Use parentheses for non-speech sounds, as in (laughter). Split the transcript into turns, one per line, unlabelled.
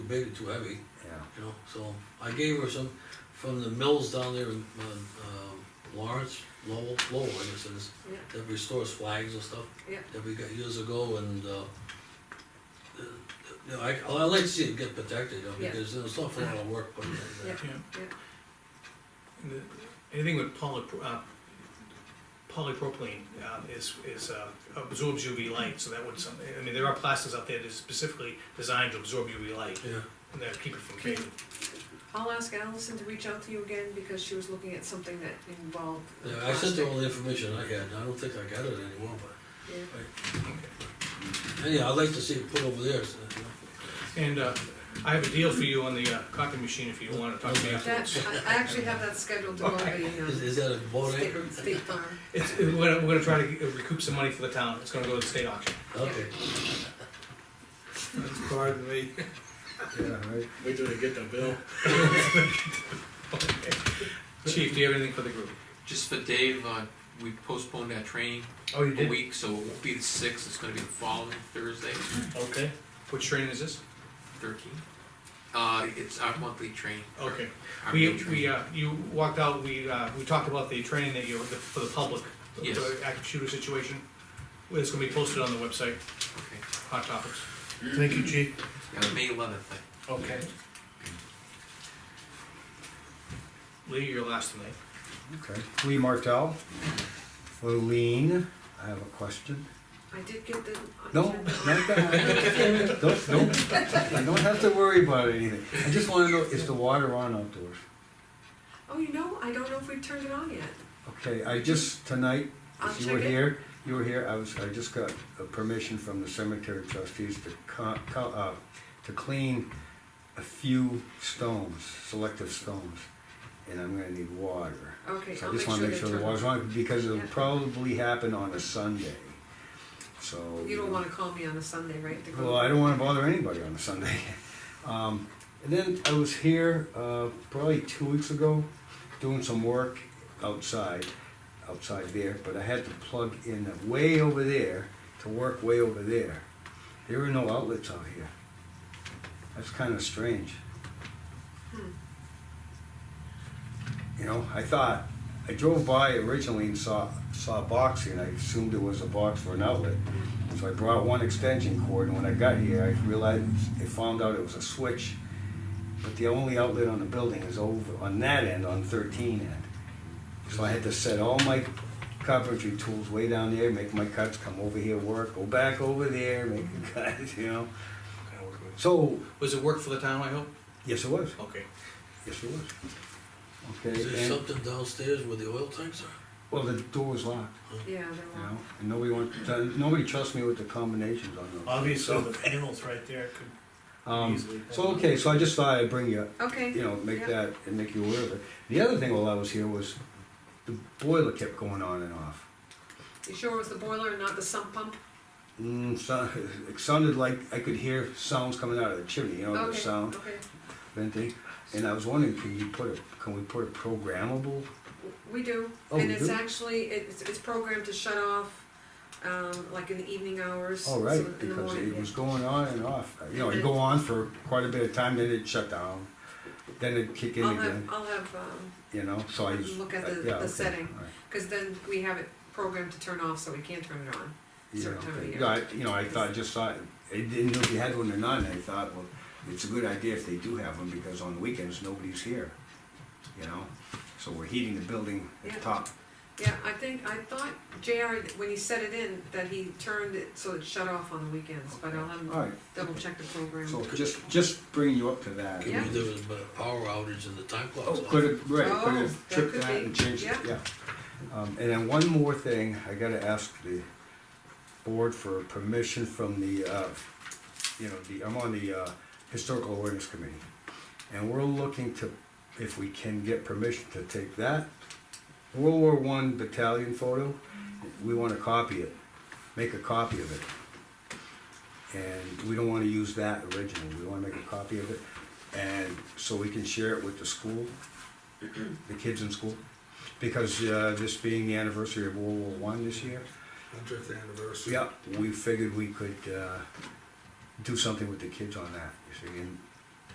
big and too heavy,
yeah.
you know, so I gave her some from the mills down there in, uh, um, Lawrence, Lowell, Lowell, I guess it is,
Yeah.
that restores flags and stuff.
Yeah.
That we got years ago and, uh, uh, you know, I, I like to see it get protected, you know,
Yeah.
because there's an awful lot of work uh, put into
(laughs) Yeah.
that.
yeah.
Yeah.
And the- Anything with poly, uh, polypropylene, uh, is, is, uh, absorbs UV light, so that would some, I mean, there are plastics out there that is specifically designed to absorb UV light,
Yeah,
and that keep it from fading.
I'll ask Allison to reach out to you again because she was looking at something that involved. uh,
yeah, I sent her all
plastic.
the information I had, and I don't think I got it anymore, but
Yeah.
anyhow, I'd like to see it put over there, so, you know.
And, uh, I have a deal for you on the, uh, copy machine if you wanna talk to me after.
That, I- I actually have that scheduled to go on
Okay.
the,
Is,
um,
is that a boat
State-
anchor?
State Farm.
It's, it- we're, gonna- we're gonna try to recoup some money for the town, it's gonna go to the state auction.
Okay,
Pardon
(laughs)
me.
Yeah, right.
Wait till they get the bill.
Chief, do you have anything for the group?
Just for Dave, uh, we postponed our training
Oh, you
a week, so it won't be the sixth, it's gonna be the following Thursday,
Okay. Which training is this?
thirteen. Uh, it's our monthly training.
Okay.
our
We,
main training.
we, uh, you walked out, we, uh, we talked about the training that you, the- for the public. the-
Yes.
The active shooter situation, it's gonna be posted on the website,
Okay,
hot topics.
Thank you, chief.
yeah, May eleventh,
Okay. Lee, you're last tonight.
Okay. Lee Martell, for Lean, I have a question.
I did get the.
No, not that. Don't, don't, I don't have to worry about anything. I just wanna know, is the water on outdoors?
Oh, you know, I don't know if we've turned it on yet.
Okay, I just, tonight,
I'll
if you were
check it.
here, you were here, I was, I just got a permission from the cemetery trustees to co- co- uh, to clean a few stones, selective stones, and I'm gonna need water.
Okay,
So I
I'll make
just
sure
wanna
they
make sure the
turn it
water's on, because it'll
Yeah.
probably happen on a Sunday, so.
on. You don't wanna call me on a Sunday, right? to go-
Well, I don't wanna bother anybody on a Sunday. (laughs) Um, and then I was here, uh, probably two weeks ago, doing some work outside, outside there, but I had to plug in way over there to work way over there. There were no outlets out here. That's kinda strange. You know, I thought, I drove by originally and saw, saw a box here, and I assumed it was a box for an outlet. So I brought one extension cord, and when I got here, I realized, I found out it was a switch. But the only outlet on the building is over, on that end, on thirteen end. So I had to set all my carpentry tools way down there, make my cuts, come over here, work, go back over there, make the (laughs) cuts, you know? So,
Was it work for the town, I hope?
yes, it was,
Okay.
yes, it was.
is
Okay,
there
and,
something downstairs where the oil tanks are?
well, the door was locked.
Yeah, they're
You
on.
know, and nobody want, nobody trusts me with the combinations on those.
Obviously, the panels right there could
Um,
easily.
so, okay, so I just thought I'd bring you, you
Okay,
know, make
Yeah.
that, and make you aware of it. The other thing while I was here was, the boiler kept going on and off.
you sure it was the boiler and not the sump pump?
Mm, so, it sounded like I could hear sounds coming out of the chimney, you know, the
Okay.
sound
Okay,
venting. And I was wondering, can you put a, can we put a programmable?
W- we do,
Oh,
and
we
it's
do?
actually, it's, it's programmed to shut off, um, like in the evening hours.
All
so in
right,
the
because
morning,
it
yeah.
was going on and off. Uh, You know, it'd go on for quite a bit of time, then it'd shut down, then it'd kick in
I'll have,
again,
I'll have, um,
you know, so I just.
Look at the-
yeah,
the
okay,
setting.
all right.
cause then we have it programmed to turn off, so we can't turn it on.
Yeah,
certain time of
okay.
year.
Yeah, I, you know, I thought, just thought, I didn't know if you had one or not, and I thought, well, it's a good idea if they do have one, because on weekends, nobody's here, you know? So we're heating the building
Yeah.
at top.
Yeah, I think, I thought JR, when he set it in, that he turned it so it shut off on the weekends, but I'll have him
All right,
double check the program.
so just, just bringing you up to that.
Yeah.
Could be there was a power outage and the time
Oh,
clock's off.
could have, right, could
Oh,
have
that
tripped
could
that
be,
and changed it, yeah.
yeah.
Um, and then one more thing, I gotta ask the board for permission from the, uh, you know, the, I'm on the, uh, Historical Awareness Committee. And we're looking to, if we can get permission to take that World War One battalion photo, we wanna copy it, make a copy of it. And we don't wanna use that original, we wanna make a copy of it, and so we can share it with the school, the kids in school. Because, uh, this being the anniversary of World War One this year,
Hundredth anniversary.
yeah, we figured we could, uh, do something with the kids on that, you see, and